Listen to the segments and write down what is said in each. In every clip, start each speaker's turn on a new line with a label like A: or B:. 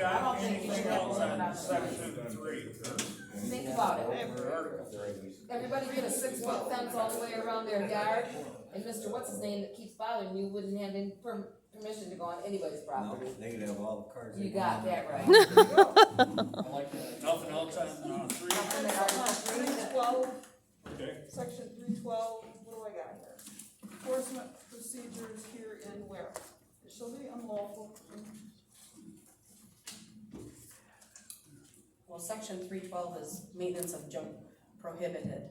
A: anything else on section three.
B: Think about it. Everybody get a six-foot fence all the way around their yard, and Mr. What's his name that keeps bothering you wouldn't have any per- permission to go on anybody's
C: No,
B: property.
C: they could have all the cars. they
B: You got
C: wanted.
B: that right.
A: Nothing else on, uh, three?
B: And then I'll-
D: Three twelve,
A: Okay,
D: section three twelve, what do I got here? Enforcement procedures here and where? It shall be unlawful.
E: Well, section three twelve is maintenance of junk prohibited.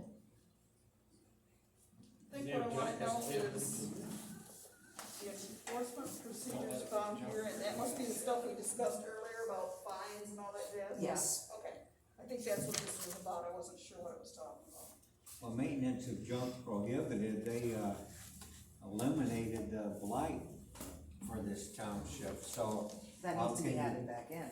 D: I think what I wanna know is the enforcement procedures found here, and that must be the stuff we discussed earlier about fines and all that jazz?
E: Yes.
D: Okay, I think that's what this was about, I wasn't sure what it was talking about.
C: Well, maintenance of junk prohibited, they, uh, eliminated the blight for this township, so.
F: That
C: how
F: needs to be
C: can you-
F: added back in.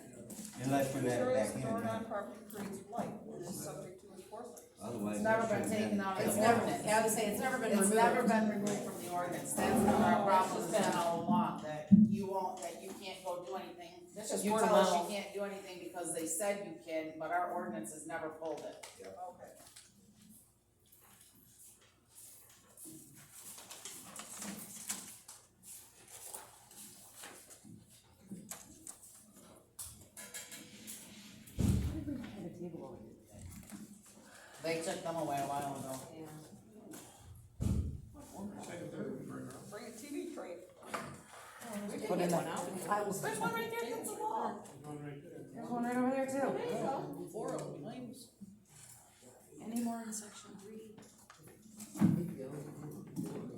C: Unless we add it
D: Materials
C: back in,
D: stored on
C: then.
D: property creates blight, which is subject to enforcement.
C: otherwise.
F: It's
C: it
F: never
C: should've
F: been taken out of
E: It's
F: the
E: never,
F: ordinance.
E: I would say it's never been
F: It's
E: removed.
F: never been removed from the ordinance, that's been our problem been all along, that you won't, that you can't go do anything.
B: That's just
F: You
B: word of
F: tell us
B: mouth.
F: you can't do anything because they said you can, but our ordinance has never pulled it.
D: Okay.
F: They took them away a while ago.
D: Bring a TV tray.
B: We did get one out. I was-
D: There's one right there, that's a wall.
F: There's one right over there too.
D: There you go.
F: Four of them, names.
E: Any more in section three?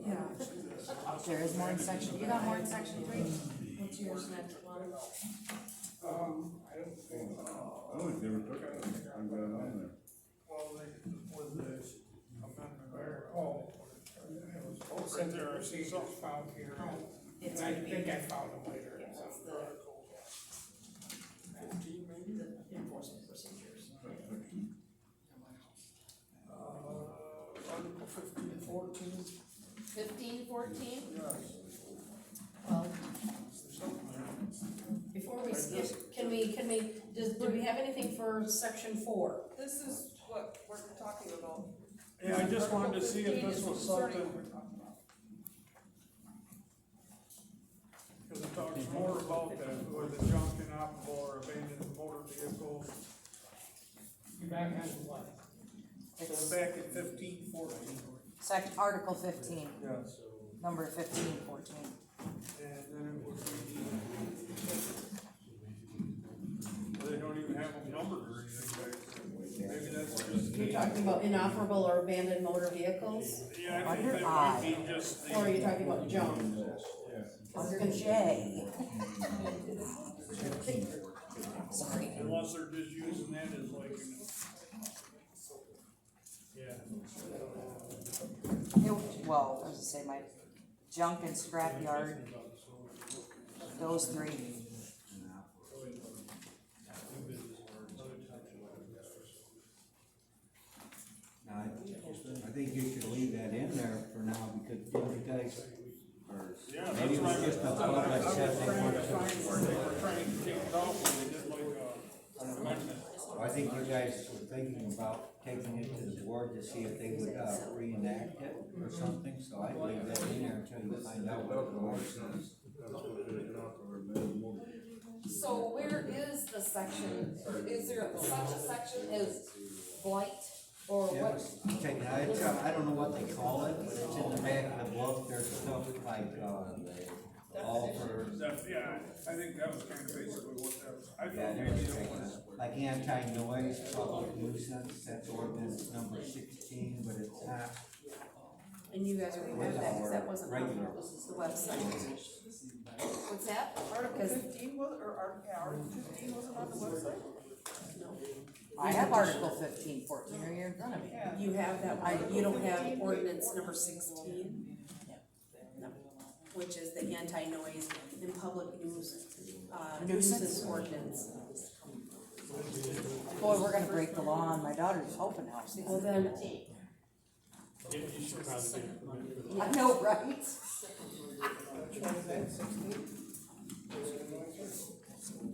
F: Yeah. There is more in section, you got more in section three?
E: What's your next one?
G: Oh, they never took it, I'm glad I'm there.
H: Well, they, with this amendment there, oh, it was both
A: Right there, I see
H: procedures
A: something.
H: found here.
F: It's
H: And I
F: gonna be-
H: think I found them later in some
F: it's the-
H: article. Fifteen, maybe? Enforcement procedures. Uh, article fifteen, fourteen,
B: Fifteen, fourteen?
H: yes,
E: Well,
H: there's something
E: before we skip, can we, can we, does, do we have anything for section four?
D: This is what we're talking about.
A: yeah, I just wanted to see if
D: Article
A: this
D: 15
A: was
D: is concerning
A: something,
D: what we're talking about.
A: cause it talks more about the, with the junk inoperable or abandoned motor vehicles.
H: You're back on what?
A: So we're back at fifteen fourteen.
F: Sect, Article fifteen,
A: Yes.
F: number fifteen,
A: And
F: fourteen.
A: then it would be. They don't even have them numbered or anything back there. Maybe that's just.
E: You're talking about inoperable or abandoned motor vehicles,
A: Yeah, I think that might be just the.
E: or you're talking about junk? Under J.
A: Unless they're just using that as like. an- Yeah.
F: It- Well, I was gonna say, my junk and scrapyard, those three.
C: Now, I, I think you should leave that in there for now, because you guys are,
A: Yeah, that's
C: maybe it was
A: right.
C: just a
A: I
C: thought I
A: was
C: said they
A: trying to
C: weren't-
A: find where they were trying to take it off, and they did like a amendment.
C: I think you guys were thinking about taking it to the board to see if they would, uh, reenact it or something, so I'd leave that in there until you find out what the board says.
B: So where is the section, is there such a section as blight, or
C: Yeah,
B: what?
C: okay, now, it's, uh, I don't know what they call it, but it's in the back of the book, there's stuff like, uh, alter,
A: That- Yeah, I think that was kind of basically what that was. I
C: yeah,
A: thought maybe
C: there's,
A: it
C: uh,
A: was.
C: like anti-noise, public nuisance, that's ordinance number sixteen, but it's not.
E: And you guys remember that, cause that wasn't on
C: Regular.
E: this is the website.
B: What's that?
D: Article
E: Because-
D: fifteen was, or, ar- yeah, article fifteen wasn't on the website?
F: I have Article fifteen, fourteen right here in front of me.
D: Yeah.
E: You have that, I, you don't have ordinance number sixteen? No. Which is the anti-noise in public nuisance, uh, nuisance ordinance.
F: Boy, we're gonna break the law, and my daughter's hoping now.
E: Well, then,
F: I know, right?